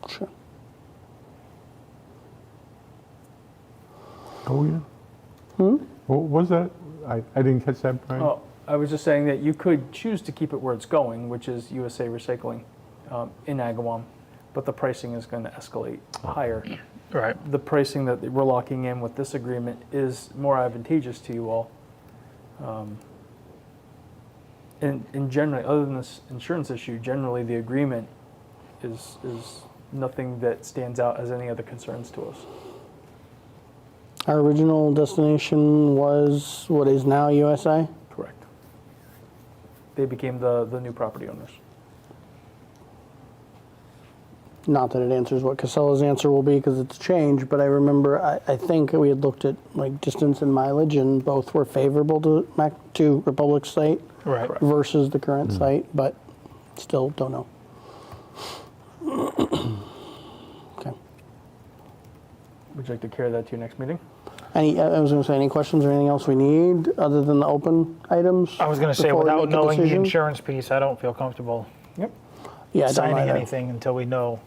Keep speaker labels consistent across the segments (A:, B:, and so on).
A: culture.
B: Oh, yeah. What was that? I, I didn't catch that, Brian.
C: Oh, I was just saying that you could choose to keep it where it's going, which is USA Recycling um, in Agawam, but the pricing is going to escalate higher.
A: Right.
C: The pricing that we're locking in with this agreement is more advantageous to you all. Um, And, and generally, other than this insurance issue, generally the agreement is, is nothing that stands out as any other concerns to us.
A: Our original destination was what is now USA.
C: Correct. They became the, the new property owners.
A: Not that it answers what Casella's answer will be because it's changed, but I remember I, I think we had looked at like distance and mileage, and both were favorable to Mac to Republic site
D: Right.
C: Correct.
A: versus the current site, but still don't know. okay.
C: Would you like to carry that to your next meeting?
A: Any, I I was going to say, any questions or anything else we need other than the open items?
D: I was going to say,
A: before we
D: without
A: make a
D: knowing the
A: decision?
D: insurance piece, I don't feel comfortable
C: Yep.
A: yeah, I don't
D: signing
A: either.
D: anything until we know,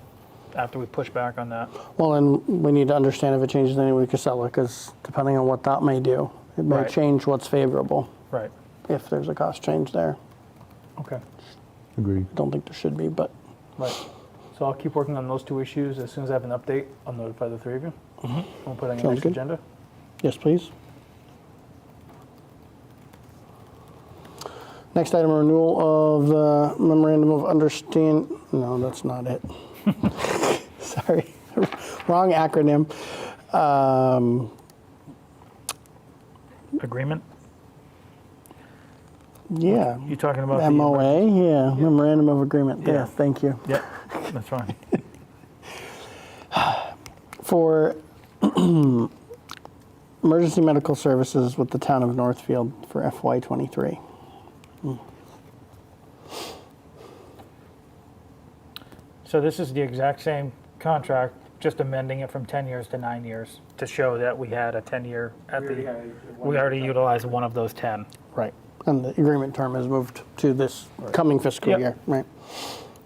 D: after we push back on that.
A: Well, and we need to understand if it changes any with Casella, because depending on what that may do, it may
D: Right.
A: change what's favorable
D: Right.
A: if there's a cost change there.
C: Okay.
B: Agreed.
A: Don't think there should be, but
C: Right. So I'll keep working on those two issues. As soon as I have an update, I'll notify the three of you. We'll put it on
A: Mm-hmm. Sounds
C: your next
A: good.
C: agenda.
A: yes, please. Next item, renewal of the memorandum of understand. No, that's not it. Sorry, wrong acronym. Um,
D: Agreement?
A: yeah,
D: You talking about? the-
A: MOA. Yeah, memorandum of agreement. There,
D: Yeah.
A: thank you.
D: Yep, that's fine.
A: for emergency medical services with the town of Northfield for FY23.
D: So this is the exact same contract, just amending it from 10 years to nine years to show that we had a 10-year at the, we already utilized one of those 10.
A: Right. And the agreement term has moved to this coming fiscal
D: Yep.
A: year, right?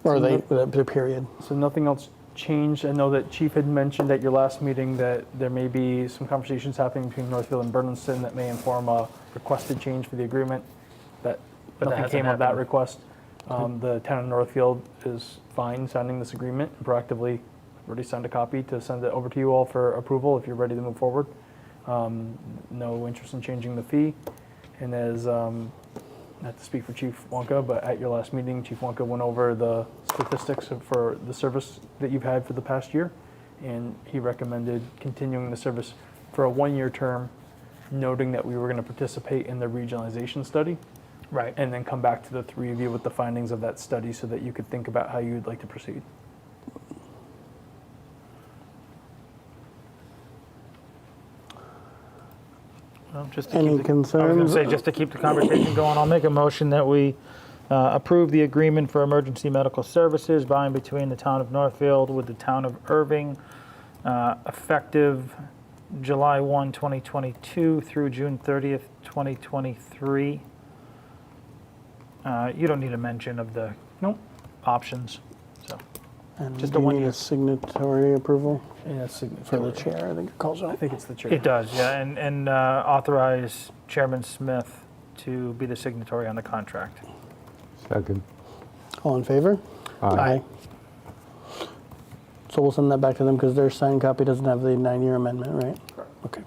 A: Or they, the, the period.
C: So nothing else changed. I know that Chief had mentioned at your last meeting that there may be some conversations happening between Northfield and Berniston that may inform a requested change for the agreement. That
D: But that
C: nothing
D: hasn't
C: came of that
D: happened. Mm-hmm.
C: request. Um, the town of Northfield is fine signing this agreement and proactively already signed a copy to send it over to you all for approval if you're ready to move forward. Um, no interest in changing the fee. And as um, not to speak for Chief Wonka, but at your last meeting, Chief Wonka went over the statistics of- for the service that you've had for the past year, and he recommended continuing the service for a one-year term, noting that we were going to participate in the regionalization study,
D: Right.
C: and then come back to the three of you with the findings of that study so that you could think about how you'd like to proceed.
D: Well, Just to
A: Any
D: keep the- I was going to
A: concerns?
D: say, just to keep the conversation going, I'll make a motion that we uh, approve the agreement for emergency medical services by and between the town of Northfield with the town of Irving, uh, effective July 1, 2022 through June 30th, 2023. Uh, You don't need a mention of the
C: Nope.
D: options, so.
A: And
D: Just
A: do
D: a
A: you
D: one
A: need
D: year.
A: a signatory approval
C: And that's
A: for the
C: signatory.
A: chair, I think it calls
C: I
A: out.
C: think it's the chair.
D: It does, yeah, and, and uh, authorize Chairman Smith to be the signatory on the contract.
B: Second.
A: All in favor?
B: Aye.
A: So we'll send that back to them because their signed copy doesn't have the nine-year amendment, right? Okay.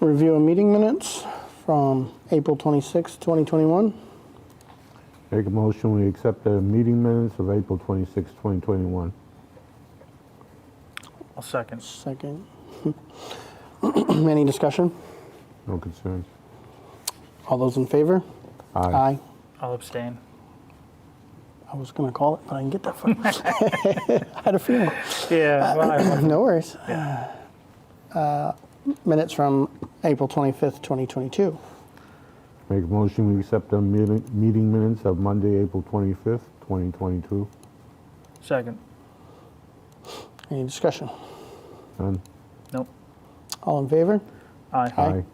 A: Review of meeting minutes from April 26, 2021.
B: Make a motion, we accept the meeting minutes of April 26, 2021.
D: I'll second.
A: Second. Any discussion?
B: No concerns.
A: All those in favor? Aye.
D: I'll abstain.
A: I was going to call it, but I didn't get that far. I had a feeling.
D: Yeah, well, I-
A: No worries. Uh, Minutes from April 25th, 2022.
B: Make a motion, we accept the meeting meeting minutes of Monday, April 25th, 2022.
D: second.
A: Any discussion?
B: None?
D: Nope.
A: All in favor?
D: Aye.
A: Aye.
B: Aye.